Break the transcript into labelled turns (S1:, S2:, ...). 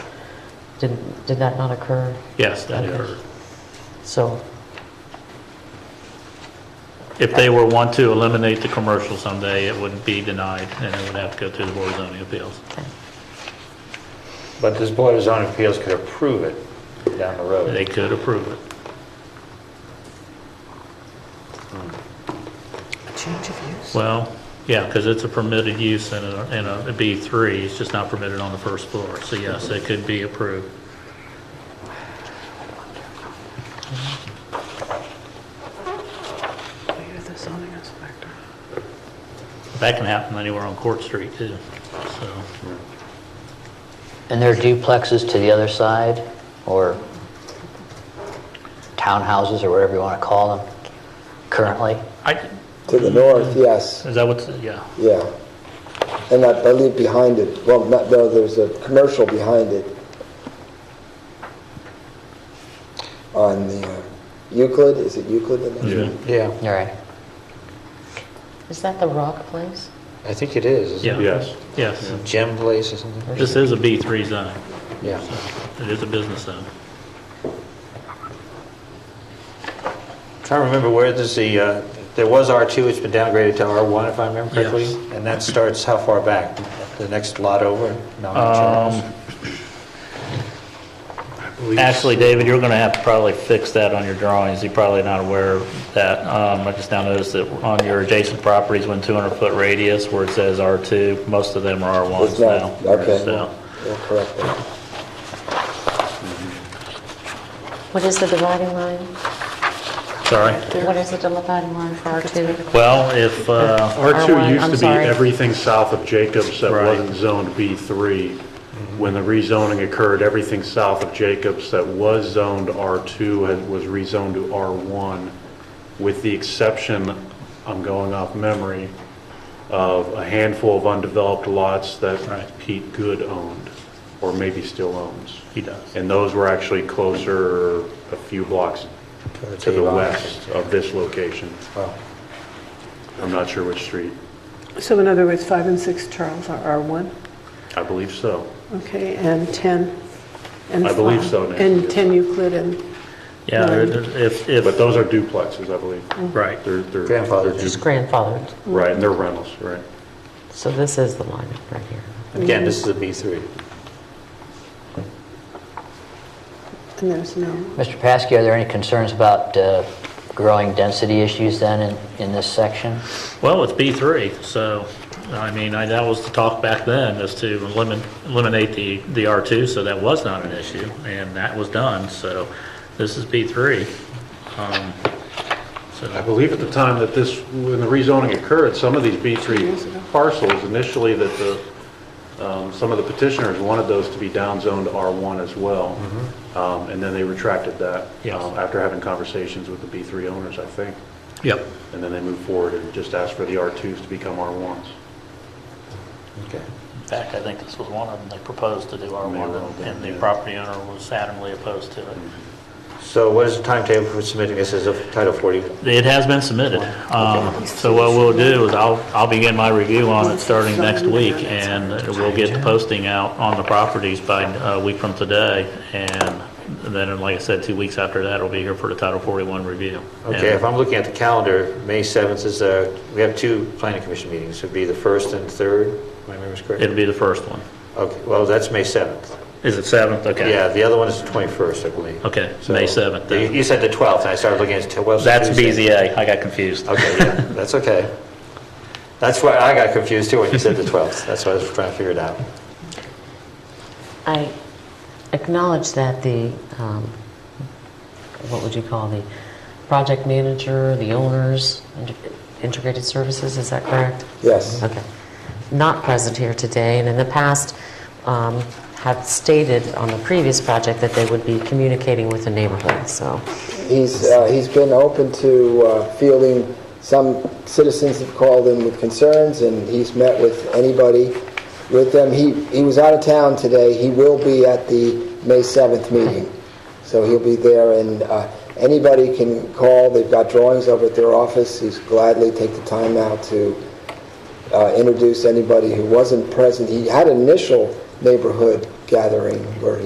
S1: Did, did that not occur?
S2: Yes, that
S1: Okay.
S2: occurred.
S1: So,
S2: If they were want to eliminate the commercial someday, it would be denied, and it would have to go through the Board of Zoning Appeals.
S3: But this Board of Zoning Appeals could approve it down the
S2: They
S3: road.
S2: could approve it.
S4: Change of use?
S2: Well, yeah, because it's a permitted use in a, in a B3, it's just not permitted on the first floor. So yes, it could be approved.
S4: Oh, you're the zoning inspector.
S2: That can happen anywhere on Court Street too, so.
S5: And there are duplexes to the other side, or townhouses, or whatever you want to call them, currently?
S2: I,
S6: To the north, yes,
S2: is that what's, yeah.
S6: yeah. And I believe behind it, well, not, no, there's a commercial behind it on the uh, Euclid, is it Euclid? in that?
S7: Yeah,
S5: All right.
S1: is that the rock place?
S7: I think it is, isn't
S2: Yeah.
S7: it?
S2: Yes. Yes.
S7: Gem Place or something?
S2: This is a B3 zone.
S7: Yeah.
S2: It is a business zone.
S7: Trying to remember where this, the, uh, there was R2, it's been downgraded to R1, if I remember correctly?
S2: Yes.
S7: And that starts how far back? The next lot over? No, not
S2: Um, Actually, David, you're going to have to probably fix that on your drawings. You're probably not aware of that. Um, I just now noticed that on your adjacent properties, when 200-foot radius, where it says R2, most of them are R1s
S6: It's not,
S2: now.
S6: okay.
S2: So,
S6: Yeah, Correct. that.
S1: What is the dividing line?
S2: Sorry.
S1: What is the dividing line for R2?
S2: Well, if, uh,
S1: R1,
S8: R2
S1: I'm
S8: used to be
S1: sorry.
S8: everything south of Jacobs that
S2: Right.
S8: wasn't zoned B3. When the rezoning occurred, everything south of Jacobs that was zoned R2 had- was rezoned to R1, with the exception, I'm going off memory, of a handful of undeveloped lots that
S2: Right.
S8: Pete Good owned, or maybe still owns.
S2: he does.
S8: And those were actually closer, a few blocks
S7: the
S8: to the
S7: Avon.
S8: west of this location.
S7: Wow.
S8: I'm not sure which street.
S9: So in other words, 5 and 6 Charles are R1,
S8: I believe so.
S9: okay, and 10 and...
S8: I believe so,
S9: five-
S8: Nancy,
S9: And
S8: yes.
S9: 10 Euclid and,
S2: Yeah, there- there- if, if,
S8: But those are duplexes, I believe.
S2: right.
S8: They're, they're.
S7: Grandfathered.
S8: they're
S1: Just
S8: du-
S1: grandfathered.
S8: Right, and they're rentals, right.
S1: So this is the line right here.
S7: Again, this is a B3.
S9: and there's no,
S5: Mr. Paskey, are there any concerns about uh, growing density issues then in, in this section?
S2: Well, it's B3, so, I mean, I- that was the talk back then, is to elimin- eliminate the, the R2, so that was not an issue, and that was done, so this is B3. Um,
S8: I
S2: So,
S8: believe at the time that this, when the rezoning occurred, some of these B3 parcels initially that the, um, some of the petitioners wanted those to be downzoned R1 as well. Um, And then they retracted that.
S2: Yes.
S8: um, After having conversations with the B3 owners, I think.
S2: yep,
S8: And then they moved forward and just asked for the R2s to become R1s.
S7: Okay.
S2: in fact, I think this was one of them, they proposed to do
S8: well
S2: R1,
S8: done,
S2: and the
S8: yeah.
S2: property owner was adamantly opposed to it.
S7: Mm-hmm. So what is the timetable for submitting this as a Title 40?
S2: It has been submitted. Um, So what we'll do is I'll, I'll begin my review on it starting next week, and we'll get the posting out on the properties by uh, a week from today. And then, like I said, two weeks after that, it'll be here for the Title 41 review.
S7: Okay, if I'm looking at the calendar, May 7th is, uh, we have two planning commission meetings. It'd be the first and third, if my memory's correct?
S2: It'll be the first one.
S7: Okay, well, that's May 7th.
S2: Is it 7th? Okay.
S7: Yeah, the other one is the 21st, I believe.
S2: Okay, May
S7: So-
S2: 7th then.
S7: You you said the 12th, and I started looking at the 12th.
S2: That's
S7: Tuesday.
S2: BZA. I got confused.
S7: Okay, yeah, that's okay. That's why I got confused too when you said the 12th. That's why I was trying to figure it out.
S1: I acknowledge that the, um, what would you call the project manager, the owners, Int- integrated services, is that correct?
S6: Yes.
S1: Okay. Not present here today, and in the past, um, have stated on the previous project that they would be communicating with the neighborhood, so.
S6: He's, uh, he's been open to uh, fielding, some citizens have called him with concerns, and he's met with anybody with them. He, he was out of town today, he will be at the May 7th meeting, so he'll be there, and uh, anybody can call, they've got drawings over at their office, he's gladly take the time out to uh, introduce anybody who wasn't present. He had an initial neighborhood gathering where he